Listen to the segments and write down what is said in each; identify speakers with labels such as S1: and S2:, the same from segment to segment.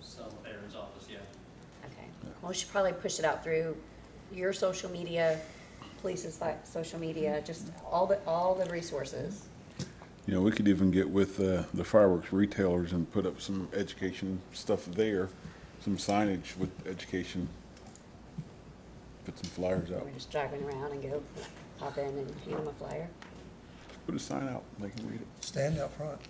S1: some veterans office, yeah.
S2: Okay. Well, we should probably push it out through your social media, police's like, social media, just all the, all the resources.
S3: You know, we could even get with uh, the fireworks retailers and put up some education stuff there, some signage with education. Put some flyers out,
S2: We're just driving around and go pop in and hand them a flyer.
S3: put a sign out, they can read it.
S4: Stand out front.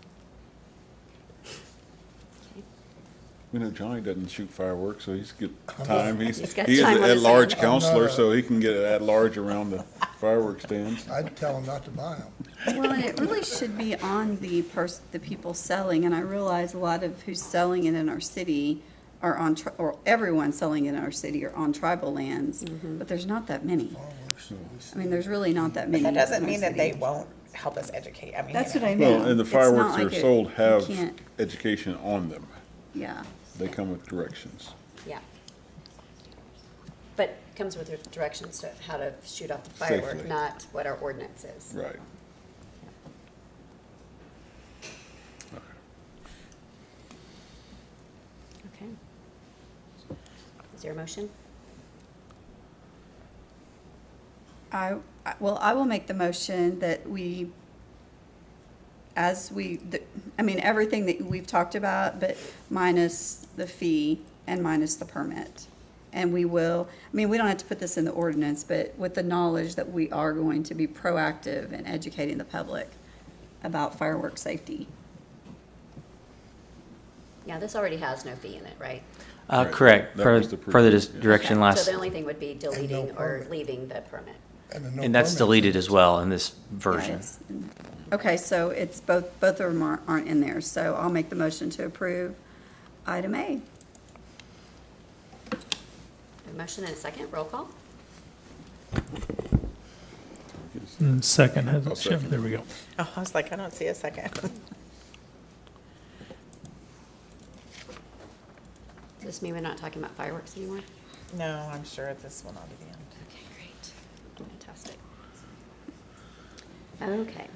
S3: We know Johnny doesn't shoot fireworks, so he's good time. He's,
S2: He's got
S3: he is
S2: time
S3: an
S2: on his
S3: at-large
S2: hands.
S3: counselor,
S4: I'm not a-
S3: so he can get at-large around the fireworks stands.
S4: I'd tell them not to buy them.
S5: Well, and it really should be on the person, the people selling, and I realize a lot of who's selling it in our city are on, tri- or everyone selling it in our city are on tribal lands,
S6: Mm-hmm.
S5: but there's not that many. I mean, there's really not that many.
S6: That
S5: in
S6: doesn't
S5: our
S6: mean that they
S5: city.
S6: won't help us educate, I mean.
S5: That's
S6: you
S5: what I mean.
S3: Well, and the
S5: It's not
S3: fireworks that
S5: like
S3: are
S5: it-
S3: sold
S5: you
S3: have
S5: can't-
S3: education on them.
S5: Yeah,
S3: They come with directions.
S2: Yeah. But it comes with directions to how to shoot off the
S3: Safely.
S2: firework, not what our ordinance is.
S3: Right.
S2: Okay. Is there a motion?
S5: I, I- well, I will make the motion that we, as we, the- I mean, everything that we've talked about, but minus the fee and minus the permit. And we will, I mean, we don't have to put this in the ordinance, but with the knowledge that we are going to be proactive in educating the public about fireworks safety.
S2: Yeah, this already has no fee in it, right?
S3: Uh,
S7: Uh,
S3: Right.
S7: correct,
S3: That
S7: per,
S3: was the
S7: per the dis-
S3: previous, yeah.
S7: direction
S2: So
S7: last,
S2: the only thing would be deleting or
S4: permit.
S2: leaving the permit.
S4: then no
S7: and that's
S4: permits.
S7: deleted as well in this
S5: Yeah,
S7: version.
S5: it's- Okay, so it's both, both of them aren't- aren't in there, so I'll make the motion to approve item A.
S2: A motion and a second, roll call?
S8: Mm, Second, has
S3: I'll
S8: it shifted?
S3: second.
S8: There we go.
S6: know. Oh, I was like, I don't see a second.
S2: Does this mean we're not talking about fireworks anymore?
S6: No, I'm sure this will not be the end.
S2: Okay, great. Fantastic. Okay,